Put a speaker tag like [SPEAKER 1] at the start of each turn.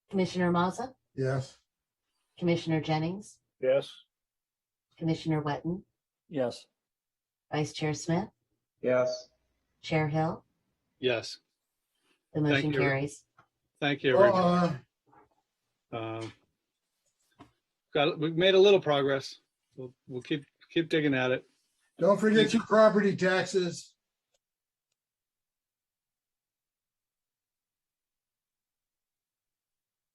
[SPEAKER 1] Commissioner Maza,
[SPEAKER 2] Yes.
[SPEAKER 1] Commissioner Jennings,
[SPEAKER 3] Yes.
[SPEAKER 1] Commissioner Wetton,
[SPEAKER 3] Yes.
[SPEAKER 1] Vice Chair Smith,
[SPEAKER 4] Yes.
[SPEAKER 1] Chair Hill,
[SPEAKER 5] Yes,
[SPEAKER 1] the motion
[SPEAKER 5] you.
[SPEAKER 1] carries.
[SPEAKER 5] thank you. Rich.
[SPEAKER 2] Uh,
[SPEAKER 5] Um, Got, we've made a little progress. We'll, we'll keep, keep digging at it.
[SPEAKER 2] Don't forget your property taxes.